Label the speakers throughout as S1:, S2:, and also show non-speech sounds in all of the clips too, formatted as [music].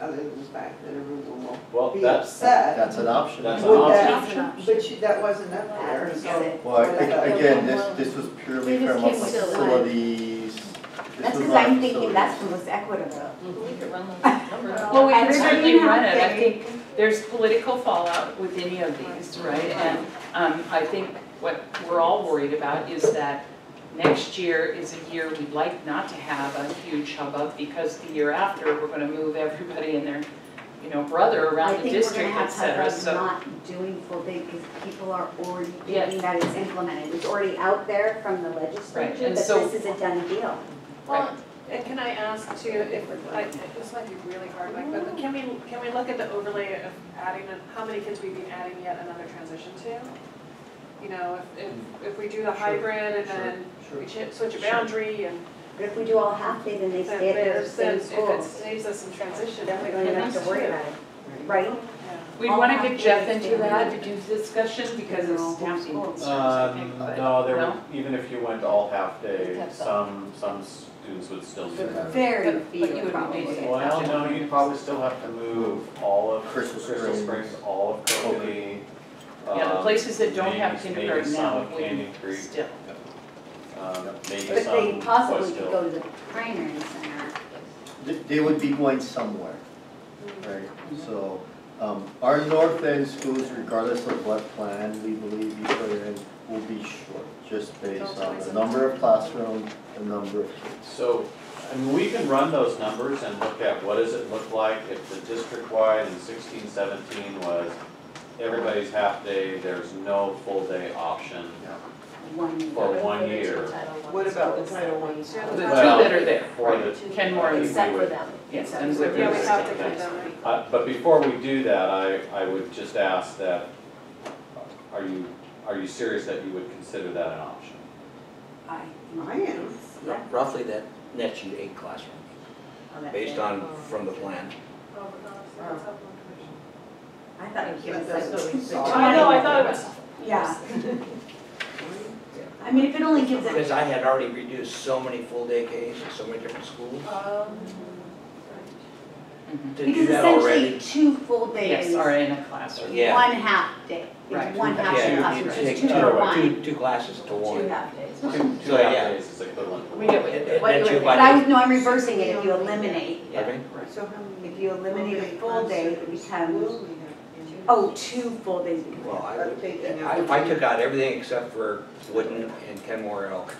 S1: other than the fact that everyone will
S2: Well,
S1: be
S2: that's-
S1: upset.
S3: That's an option.
S2: That's an
S1: Would
S2: option.
S1: that-
S4: That's an option.
S1: But you, that wasn't up there, so.
S3: Well, I think,
S1: whatever.
S3: again, this, this was purely
S4: We just
S3: from a
S4: can't still-
S3: facilities. this
S5: That's
S3: was
S5: because
S3: not a
S5: I'm thinking
S3: facilities.
S5: that's the most equitable.
S6: We could run those numbers.
S4: Well, we can
S5: And
S4: certainly
S5: certainly
S4: run it, I
S5: have
S4: think there's political fallout with any of these, right? And um, I think what we're all worried about is that next year is a year we'd like not to have a huge hubbub because the year after, we're gonna move everybody and their, you know, brother
S5: I
S4: around the
S5: think we're gonna
S4: district, et
S5: have
S4: cetera,
S5: hubs
S4: so.
S5: not doing full day because people are already
S4: Yeah.
S5: thinking that it's implemented. It's already out there from the legislature,
S4: Right,
S5: that
S4: and so-
S5: this is a done deal.
S4: Right.
S6: Well, and can I ask too, if, I, this might be really hard, Mike, but can we, can we look at the overlay of adding, an- how many kids we've been adding yet another transition to? You know, if, if, if we do the hybrid and then we chi- switch a boundary and
S5: But if we do all half day, then they
S6: then
S5: stay at their
S6: there's, then
S5: same
S6: if it
S5: schools.
S6: saves us some transition, then we
S5: Definitely don't have to worry about it, right?
S4: We'd wanna get Jeff into that, to do discussion, because it's staff schools, I think,
S2: Um,
S4: but-
S2: no, there,
S4: no?
S2: were- even if you went all half
S6: You'd
S2: day,
S6: have
S2: some, some students would still do that.
S5: Very
S4: But- but you would
S5: few
S4: be
S5: probably.
S4: basing it
S2: Well,
S4: on-
S2: no, you'd probably still have to move all of
S3: Crystal
S2: Crystal
S3: Springs.
S2: Springs, all of Coconee.
S4: Yeah, the
S2: um,
S4: places that don't have
S2: maybe- maybe
S4: kindergarten
S2: some
S4: now
S2: of Canyon
S4: would
S2: Creek,
S4: still.
S2: um, maybe
S5: But
S2: some
S5: they possibly
S2: West
S5: could
S2: Hill.
S5: go to the primary center.
S3: They, they would be going somewhere, right? So, um, our north end schools, regardless of what plan we believe you put in, will be short, just based on the number of classrooms, the number of kids.
S2: So, I mean, we can run those numbers and look at what does it look like if the district-wide in sixteen seventeen was everybody's half day, there's no full day option.
S5: One.
S2: For one year.
S1: What about the Title I?
S4: The two
S2: Well,
S4: that are there,
S2: for
S4: right,
S2: the-
S4: Ken Moore and
S2: Except for
S6: them.
S4: yes, and
S2: Yeah,
S4: with
S6: Yeah, we have to
S2: Thanks.
S6: keep them.
S2: Uh, but before we do that, I, I would just ask that, are you, are you serious that you would consider that an option?
S5: I
S1: I am.
S5: Yeah.
S7: Roughly that nets you eight classrooms, based on, from the plan.
S5: I thought it
S1: But
S5: was
S1: that's
S5: like.
S1: what we saw.
S6: I know, I thought it was,
S5: Yeah. I mean, if it only gives it,
S7: Because I had already reduced so many full-day Ks at so many different schools to do
S5: because
S7: that
S5: essentially
S7: already.
S5: two full days,
S4: Yes,
S5: one
S4: are in a classroom.
S7: Yeah.
S5: half day,
S4: Right.
S5: it's one half day
S7: Yeah,
S5: classroom,
S7: you
S5: so it's
S7: take
S5: two for
S7: two,
S5: one,
S7: two classes to
S5: two
S7: one.
S5: half days.
S2: Two, two
S7: So,
S2: half
S7: yeah.
S2: days is equivalent.
S4: We get
S7: It-
S4: it.
S7: it
S6: What
S7: nets
S6: you
S7: you
S6: would-
S7: by
S5: But I
S7: eight.
S5: would, no, I'm reversing it, if you eliminate,
S7: Okay.
S1: So how many?
S5: if you eliminate a full day, it becomes, oh, two full days becomes.
S7: Well, I
S1: I'm
S7: would,
S1: thinking
S7: I-
S1: of-
S7: if I took out everything except for Wooden and Kenmore Elk,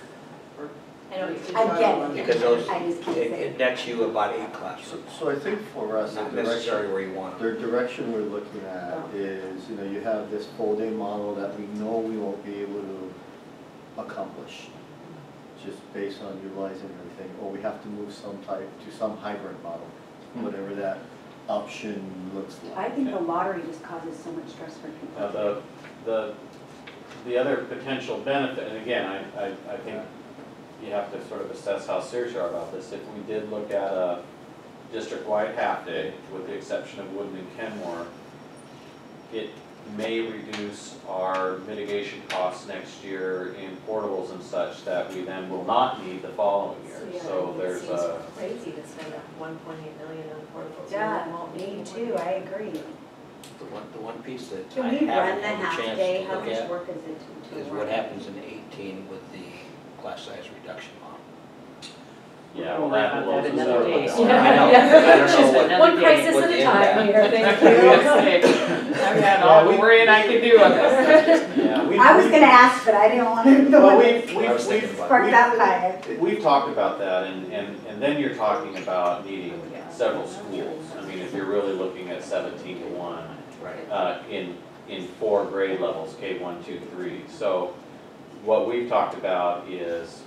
S5: I get it.
S7: because those,
S5: I just
S7: it
S5: can't say.
S7: it nets you about eight
S3: So,
S7: classrooms.
S3: so I think for us, the
S7: Not
S3: direction
S7: necessarily where you want them.
S3: The direction we're looking at is, you know, you have this full-day model that we know we won't be able to accomplish, just based on utilizing everything, or we have to move some type to some hybrid model, whatever that option looks like.
S5: I think the lottery just causes so much stress for people.
S2: Now, Uh,
S7: Uh,
S2: the, the, the other potential benefit, and again, I, I, I think you have to sort of assess how serious you are about this. If we did look at a district-wide half-day, with the exception of Woodland and Kenmore, it may reduce our mitigation costs next year in portables and such that we then will not need the following year. So there's a,
S6: Crazy to spend one point eight million on portables.
S5: Me too, I agree.
S7: The one, the one piece that I
S5: Can we
S7: haven't
S5: run the
S7: had a
S5: half
S7: chance
S5: day,
S7: to
S5: how
S7: look
S5: much
S7: at
S5: work is it to, to
S7: is
S5: run?
S7: what happens in eighteen with the class size reduction model.
S2: yeah, well, that will
S4: We'll worry
S2: also.
S4: about that another
S2: serve us.
S4: day.
S5: [laughs]
S7: I know,
S4: [laughs] Yeah.
S7: I don't know what-
S4: One crisis
S7: what the impact-
S4: here,
S7: [laughs]
S4: thank you. I've had all the worrying I could do
S7: [laughs]
S4: on this.
S2: Yeah, we-
S5: I was
S2: we-
S5: gonna ask, but I didn't wanna, the
S2: Well,
S5: one
S2: we've,
S5: [laughs]
S7: I was
S2: we've,
S7: thinking
S2: we've
S7: about it.
S5: spark that fire.
S2: We've talked about that, and, and, and then you're talking about needing several schools. I mean, if you're really looking at seventeen to one,
S7: Right.
S2: uh, in, in four grade levels, K one, two, three. So what we've talked about is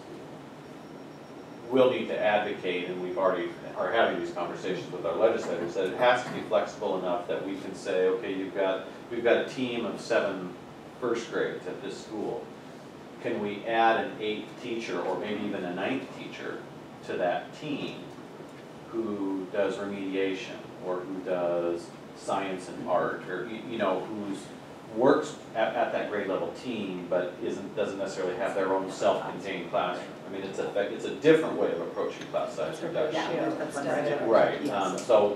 S2: we'll need to advocate, and we've already, are having these conversations with our legislators, that it has to be flexible enough that we can say, okay, you've got, we've got a team of seven first grades at this school. Can we add an eighth teacher, or maybe even a ninth teacher, to that team who does remediation, or who does science and art, or, you you know, who's, works at, at that grade level team, but isn't, doesn't necessarily have their own self-contained classroom. I mean, it's a, it's a different way of approaching class size reduction.
S1: Yeah, that's right.
S2: Right, um, so